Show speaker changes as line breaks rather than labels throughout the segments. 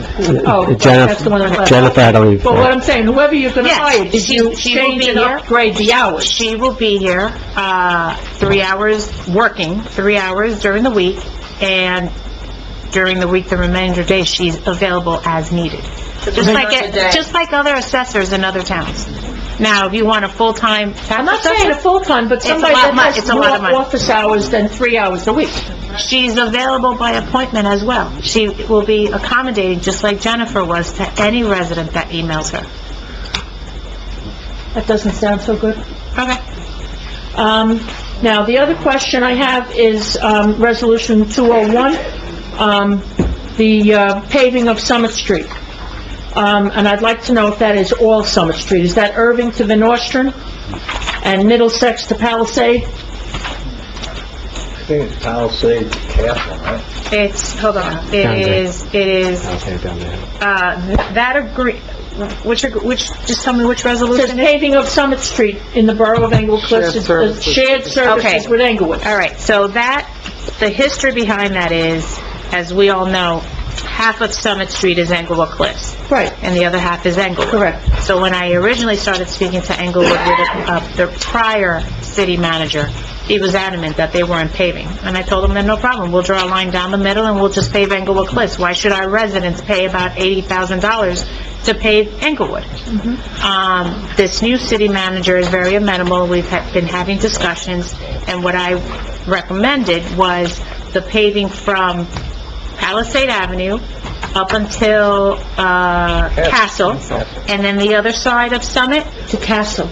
Oh, right, that's the one I
Jennifer,
left.
Jennifer had to leave.
But what I'm saying, whoever you're gonna
Yes,
hire, did
she-
you
she will
change
be
and
here.
upgrade the hours?
She will be here, uh, three hours working, three hours during the week, and during the week, the remainder day, she's available as needed. Just like, it- just like other assessors in other towns. Now, if you want a full-time
I'm
tax
not saying a
assessor,
full-time, but
a
somebody
lot
that
of mon-
has
it's a lot of
more
money.
office hours than three hours a week.
she's available by appointment as well. She will be accommodating, just like Jennifer was, to any resident that emails her.
That doesn't sound so good.
Okay.
Um, now, the other question I have is, um, Resolution 201, um, the uh, paving of Summit Street. Um, and I'd like to know if that is all Summit Street. Is that Irving to Van Nostrand and Middlesex to Palisade?
I think it's Palisade Castle, right?
It's, hold on,
Down
it
there.
is, it is,
Okay, down there.
uh, th- that agree, which, ag- which, just tell me which
It says
resolution it is.
paving of Summit Street in the borough of Englewood Cliffs. It's, uh, Shared services
Okay.
with Englewood.
All right, so that, the history behind that is, as we all know, half of Summit Street is Englewood Cliffs,
Right,
and the other half is Englewood.
correct.
So when I originally started speaking to Englewood with uh, the prior city manager, he was adamant that they weren't paving. And I told him that, no problem, we'll draw a line down the middle and we'll just pave Englewood Cliffs. Why should our residents pay about $80,000 to pave Englewood? Um, this new city manager is very amenable, we've ha- been having discussions, and what I recommended was the paving from Palisade Avenue up until, uh, Castle, and then the other side of Summit,
To Castle.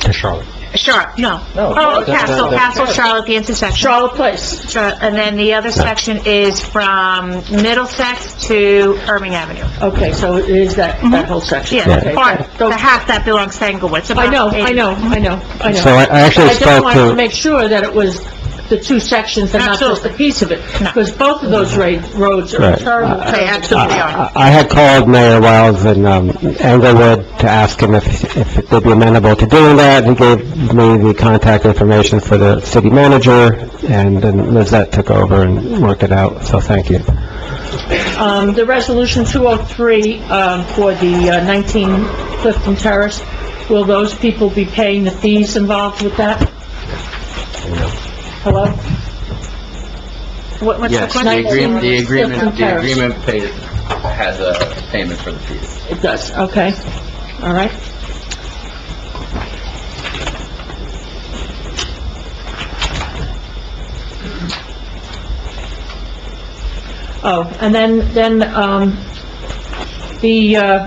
To Charlotte.
Charlotte, no.
No,
Oh,
that- that-
Castle,
that-
Castle, Charlotte, the intersection.
Charlotte Place.
Char- And then the other section is from Middlesex to Irving Avenue.
Okay, so it is that,
Mm-hmm.
that whole section.
Yeah, the
Okay,
part,
go-
the half that belongs to Englewood. It's
I
about
know, I
80.
know, I know, I know.
So I I actually
I just
spoke
wanted to
to,
make sure that it was the two sections and not just a
Absolutely.
piece of it.
No.
Because both of those ra- roads are
Right.
terrible.
They absolutely
Ah,
are.
I I had called Mayor Wiles in um, Englewood to ask him if, if it would be amenable to doing that. He gave me the contact information for the city manager, and then Lizette took over and worked it out, so thank you.
Um, the resolution 203, um, for the uh, 19 Clifton Terrace, will those people be paying the fees involved with that? Hello?
What- What's the
Yes,
question?
the agreement, the
Different
agreement, the
tariffs.
agreement pays, has a payment for the fees.
It does, okay, all right. Oh, and then, then, um, the, uh,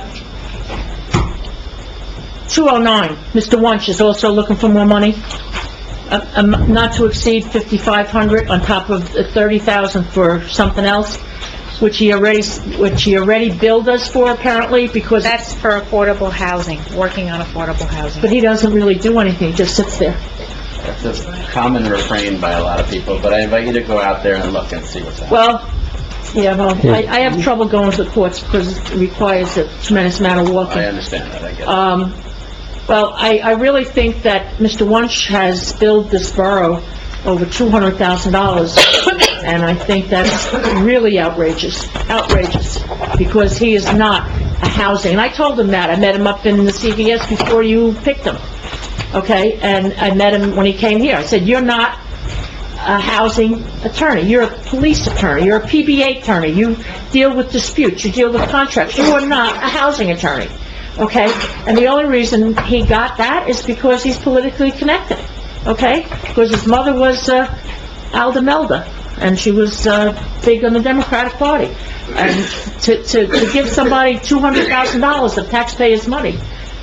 209, Mr. Wunsch is also looking for more money, Uh, um, not to exceed 5,500 on top of the 30,000 for something else, which he already, s- which he already billed us for apparently, because,
That's for affordable housing, working on affordable housing.
but he doesn't really do anything, he just sits there.
That's a common refrain by a lot of people, but I invite you to go out there and look and see what's happening.
Well, yeah, well, I, I have trouble going to the courts because it requires a tremendous amount of
I
walking.
understand that, I get it.
Um, well, I, I really think that Mr. Wunsch has billed this borough over two hundred thousand dollars, and I think that's really outrageous, outrageous, because he is not a housing, and I told him that, I met him up in the CVS before you picked him, okay? And I met him when he came here, I said, "You're not a housing attorney, you're a police attorney, you're a PBA attorney, you deal with disputes, you deal with contracts, you are not a housing attorney, okay? And the only reason he got that is because he's politically connected, okay? Because his mother was, uh, Alda Melda, and she was, uh, big on the Democratic Party. And to, to, to give somebody two hundred thousand dollars of taxpayers' money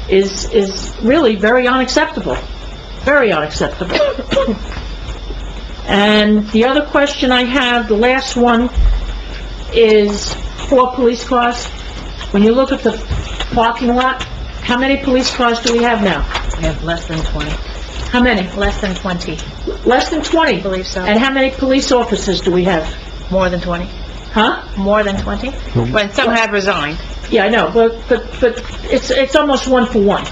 is, is really very unacceptable, very unacceptable. And the other question I have, the last one, is four police cars. When you look at the parking lot, how many police cars do we have now?
We have less than 20,
How many?
less than 20,
Less than
I
20.
believe so.
And how many police officers do we have?
More than 20,
Huh?
more than 20? When some have resigned.
Yeah, I know, but, but, but it's, it's almost one for one.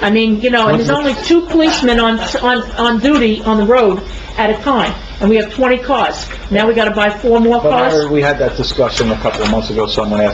I mean, you know, and there's only two policemen on, on, on duty on the road at a time, and we have 20 cars. Now we gotta buy four more
But I
cars?
heard we had that discussion a couple of months ago, someone asked